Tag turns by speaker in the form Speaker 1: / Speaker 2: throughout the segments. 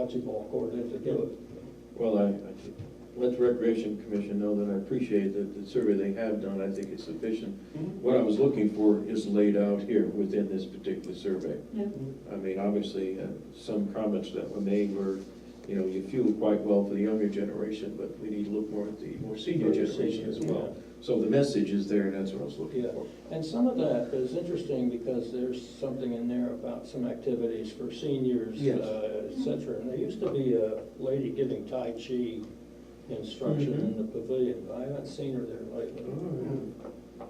Speaker 1: bocce ball court if they give it.
Speaker 2: Well, I, I think- let the Recreation Commission know that I appreciate that the survey they have done, I think is sufficient.
Speaker 1: Mm-hmm.
Speaker 2: What I was looking for is laid out here within this particular survey.
Speaker 3: Yeah.
Speaker 2: I mean, obviously, uh, some comments that were made were, you know, you fuel quite well for the younger generation, but we need to look more at the more senior
Speaker 1: Senior,
Speaker 2: generation as
Speaker 1: senior,
Speaker 2: well. So the message is there, and that's what I was looking
Speaker 1: Yeah,
Speaker 2: for.
Speaker 1: Mm-hmm. and some of that is interesting because there's something in there about some activities for seniors,
Speaker 2: Yes.
Speaker 1: uh, et cetera. And there used to be a lady giving Tai Chi instruction in the pavilion, but I haven't seen her there lately.
Speaker 2: Oh,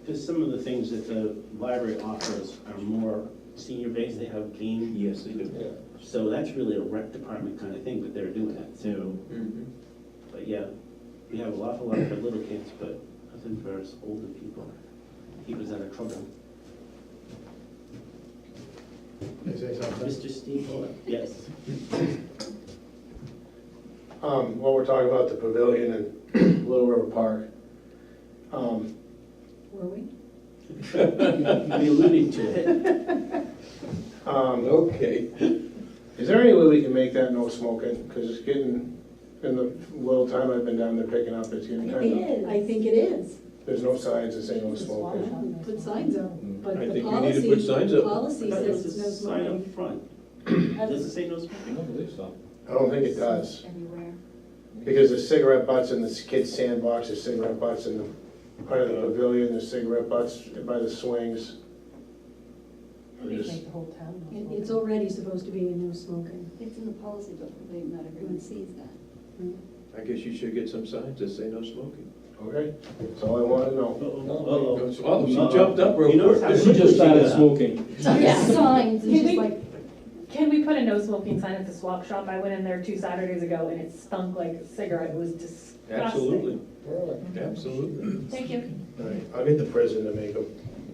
Speaker 4: Because some of the things that the library offers are more senior based, they have
Speaker 2: yeah.
Speaker 4: game,
Speaker 2: Yes, they do.
Speaker 1: Yeah.
Speaker 4: so that's really a rec department kind of thing, but they're doing that too.
Speaker 2: Mhm.
Speaker 4: But yeah, we have an awful lot for little kids, but nothing for us older people. Keep us out of trouble.
Speaker 5: Can I say something?
Speaker 4: Mr. Steve, Fuller? yes.
Speaker 5: Um, while we're talking about the pavilion and Little River Park, um,
Speaker 3: Were we?
Speaker 2: Mm-hmm.
Speaker 4: We alluded to it.
Speaker 5: um,
Speaker 2: Okay.
Speaker 5: is there any way we can make that no smoking? Cause it's getting, in the little time I've been down there picking up, it's getting
Speaker 3: I think it
Speaker 5: kinda,
Speaker 3: is. I think it is.
Speaker 5: there's no signs that say no
Speaker 3: Why
Speaker 5: smoking.
Speaker 3: not Put signs up, but
Speaker 2: Mm-hmm. I
Speaker 3: the
Speaker 2: think we need to
Speaker 3: policy,
Speaker 2: put signs
Speaker 3: the
Speaker 2: up.
Speaker 3: policy
Speaker 4: But
Speaker 3: says
Speaker 4: there's a
Speaker 3: no
Speaker 4: sign up
Speaker 3: smoking.
Speaker 4: front. Does it
Speaker 3: That's
Speaker 4: say no smoking?
Speaker 6: believe so.
Speaker 5: I don't think it does,
Speaker 3: Anywhere.
Speaker 5: because the cigarette butts in the kids' sandbox, there's cigarette butts in the part of the pavilion, there's cigarette butts by the swings. I'm just-
Speaker 7: the whole town.
Speaker 3: It, it's already supposed to be a no smoking.
Speaker 8: It's in the policy book, but not everyone sees that.
Speaker 2: I guess you should get some signs that say no smoking.
Speaker 5: Okay, that's all I wanna know.
Speaker 4: Uh-oh.
Speaker 2: Oh, she
Speaker 4: Uh-oh.
Speaker 2: jumped up real
Speaker 4: You notice
Speaker 2: quick.
Speaker 4: how
Speaker 6: She
Speaker 4: quickly
Speaker 6: just started
Speaker 4: got up?
Speaker 6: smoking.
Speaker 8: There's signs, it's
Speaker 7: Can
Speaker 8: just
Speaker 7: we-
Speaker 8: like,
Speaker 7: Can we put a no smoking sign at the swap shop? I went in there two Saturdays ago and it stunk like a cigarette. It was disgusting.
Speaker 2: Absolutely, absolutely.
Speaker 7: Thank you.
Speaker 5: Right, I'll get the prison to make them,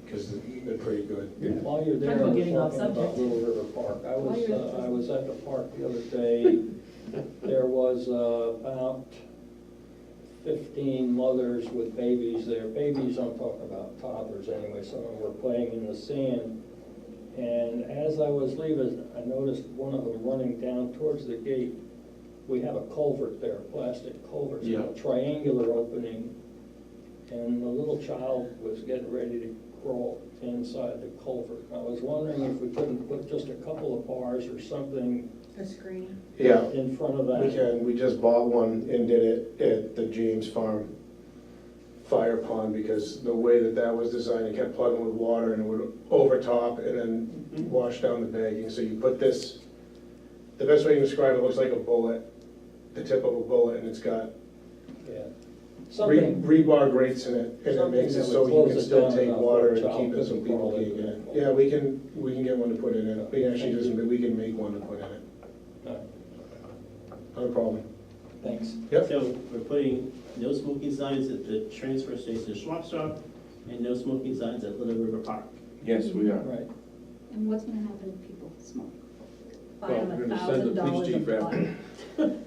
Speaker 5: because they're pretty good.
Speaker 1: While you're there,
Speaker 7: Talk about
Speaker 1: we're
Speaker 7: getting off
Speaker 1: talking about
Speaker 7: subject.
Speaker 1: Little River Park. I
Speaker 8: While
Speaker 1: was,
Speaker 8: you're-
Speaker 1: uh, I was at the park the other day. There was uh, about fifteen mothers with babies there. Babies, I'm talking about toddlers anyway, some of them were playing in the sand. And as I was leaving, I noticed one of them running down towards the gate. We have a culvert there, a plastic culvert, it's got a triangular opening. And the little child was getting ready to crawl inside the culvert. I was wondering if we couldn't put just a couple of bars or something
Speaker 3: A screen.
Speaker 5: Yeah,
Speaker 1: in front of
Speaker 5: we
Speaker 1: that.
Speaker 5: can, we just bought one and did it at the James Farm fire pond, because the way that that was designed, it kept plugging with water and it would overtop and then wash down the bagging, so you put this, the best way to describe it, looks like a bullet, the tip of a bullet, and it's got
Speaker 1: Yeah.
Speaker 5: re-
Speaker 1: Something.
Speaker 5: rebar grates in it, and it makes it so you can still take water and keep it so people can get it. Yeah, we can, we can get one to put in it, we actually doesn't, but we can make one to put in it,
Speaker 1: No,
Speaker 5: not a problem.
Speaker 1: uh, Thanks.
Speaker 5: Yep,
Speaker 4: So we're putting no smoking signs at the transfer station swap shop and no smoking signs at Little River Park.
Speaker 2: Yes, we are.
Speaker 1: Right.
Speaker 8: and what's gonna happen if people smoke?
Speaker 3: Buy them
Speaker 2: Well, we're
Speaker 3: a
Speaker 2: gonna send the
Speaker 3: thousand
Speaker 2: police
Speaker 3: dollars a
Speaker 2: chief after.
Speaker 3: bottle.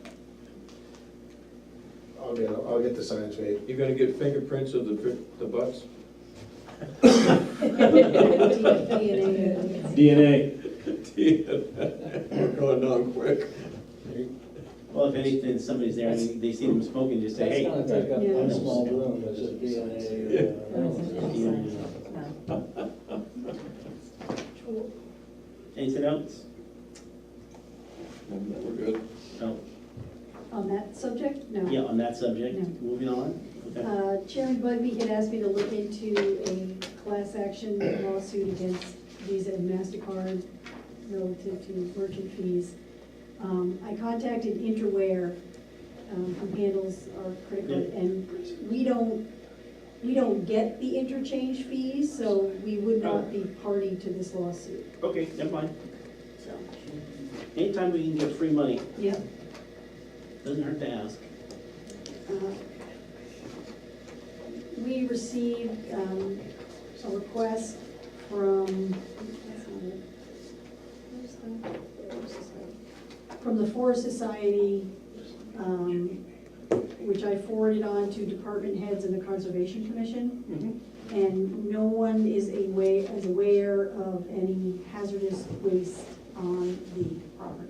Speaker 5: I'll get, I'll get the signs made.
Speaker 2: You're gonna get fingerprints of the, fr- the butts?
Speaker 3: DNA.
Speaker 6: DNA.
Speaker 2: We're going on quick.
Speaker 4: Well, if anything, somebody's there and they see them smoking, just say,
Speaker 1: That's
Speaker 4: hey.
Speaker 1: gonna take up
Speaker 3: Yeah.
Speaker 1: one small room as a uh, DNA. uh,
Speaker 4: Anything else?
Speaker 2: We're good.
Speaker 4: No,
Speaker 3: On that subject, no.
Speaker 4: yeah, on that subject,
Speaker 3: No.
Speaker 4: moving on, okay.
Speaker 3: Uh, Chairman Bugby had asked me to look into a class action lawsuit against Visa and MasterCard relative to merchant fees. Um, I contacted Interware, um, who handles our credit card,
Speaker 4: Yeah.
Speaker 3: and we don't, we don't get the interchange fees, so we would not be party to this lawsuit,
Speaker 4: Okay, never mind.
Speaker 3: so,
Speaker 4: Anytime we can get free money,
Speaker 3: yep.
Speaker 4: doesn't hurt to ask.
Speaker 3: Uh, We received um, a request from, that's not it. Where's the- where's this one? from the Forest Society, um, which I forwarded on to department heads and the Conservation Commission. And no one is aware, is aware of any hazardous waste on the property.